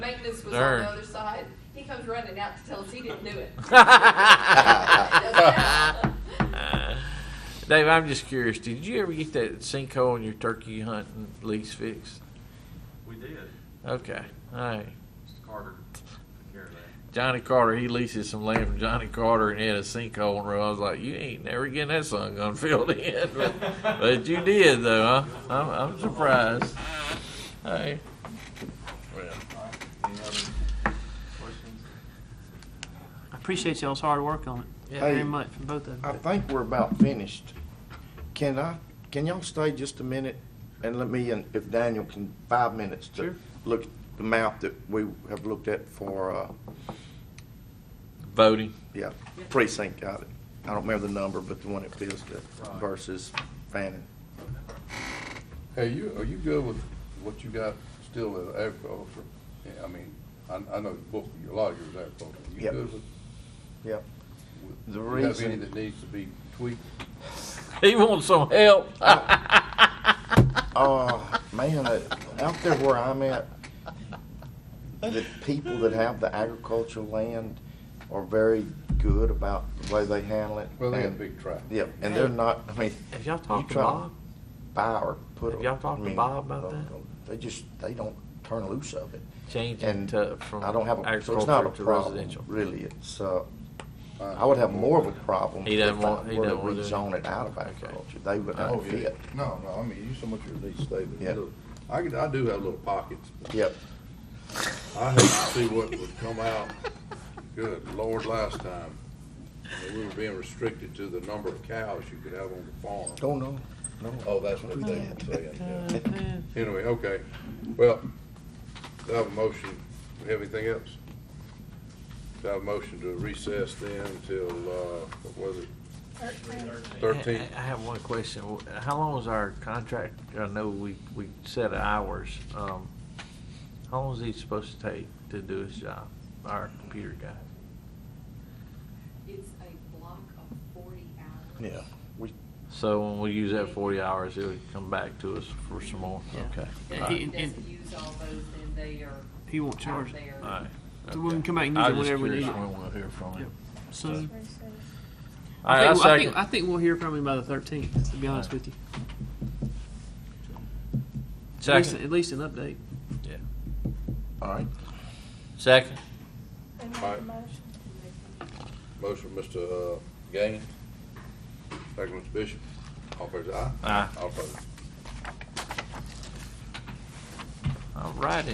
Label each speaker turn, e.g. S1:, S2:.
S1: was on
S2: sir.
S1: the other side. He comes running out to tell us he didn't do it.
S2: Dave, I'm just curious. Did you ever get that sinkhole on your turkey hunt and lease fixed?
S3: We did.
S2: Okay, all right.
S3: Mr. Carter took care of that.
S2: Johnny Carter, he leases some land from Johnny Carter, and he had a sinkhole in the road. I was like, "You ain't never getting that sun gun filled in," but, but you did, though. Huh? I'm, I'm surprised. Hey, well,
S3: All right. Any other questions?
S4: I appreciate y'all's hard work on it.
S2: Yeah.
S4: Very
S5: Hey.
S4: much from both of
S5: I
S4: you.
S5: think we're about finished. Can I, can y'all stay just a minute and let me, and if Daniel can, five minutes
S2: Sure.
S5: to look at the map that we have looked at for, uh,
S2: voting.
S5: yeah, precinct, got it. I don't remember the number, but the one it feels that
S3: Right.
S5: versus Fannin.
S6: Hey, you, are you good with what you got still as agriculture? Yeah, I mean, I, I know both, of you- a lot of yours agriculture. You
S5: Yep.
S6: good with?
S5: Yep.
S6: with-
S5: The
S6: you have any
S5: reason-
S6: that needs to be tweaked?
S2: He wants some help.
S5: Oh, man, uh, out there where I'm at, the people that have the agricultural land are very good about the way they handle it.
S6: Well, they got
S5: and-
S6: big tracts.
S5: Yeah, and they're not, I mean.
S2: Have y'all
S5: you
S2: talked to
S5: try
S2: Bob?
S5: Buy or put.
S2: Have
S5: a-
S2: y'all talked to
S5: I mean,
S2: Bob about
S5: they
S2: that?
S5: don't- They just, they don't turn loose of it.
S2: Changing
S5: And
S2: to, from
S5: I don't have, a- so it's not a
S2: agriculture to
S5: problem,
S2: residential.
S5: really. It's, uh, I would have more of a problem.
S2: He doesn't want- he
S5: If I were to
S2: doesn't want to do it.
S5: rezone it out of
S2: Okay.
S5: agriculture, they would
S6: Oh,
S5: not
S6: yeah.
S5: fit.
S6: No, no, I mean, you so much you need to stay
S5: Yeah.
S6: there. Look, I could, I do have little pockets. but
S5: Yep.
S6: I hate to see what would come out. Good Lord, last time, that we were being restricted to the number of cows you could have on the farm.
S5: Oh, no, no.
S6: Oh, that's what they were saying, yeah. Anyway, okay, well, do I have a motion, Do we have anything else? Do I have a motion to recess then until, uh, what was it? Thirteenth,
S2: I I have one question. How long is our contract? I know we, we set hours. Um, how long is he supposed to take to do his job, our computer guy?
S1: It's a block of forty hours.
S5: Yeah, we,
S2: So when we use that forty hours, he'll come back to us for some more?
S4: Yeah.
S2: Okay.
S4: Yeah,
S2: All right.
S1: He
S4: And- and-
S1: doesn't use all those, then they are
S4: He won't
S1: out
S4: charge it.
S1: there.
S2: All right.
S4: So we can come back and use
S2: I
S4: it
S2: was just
S4: whenever we
S2: curious
S4: need it.
S2: when we'll hear from him.
S4: So,
S2: All right, I
S4: think- think-
S2: second.
S4: I think we'll hear from him by the thirteenth, to be honest
S2: All
S4: with you. At least,
S2: Second.
S4: at least an update.
S2: Yeah.
S5: all right.
S2: Second.
S6: Alright. motion, Mr. uh, Gaines, second, Mr. Bishop, all fair side?
S2: Aye.
S6: All opposed?
S2: All righty.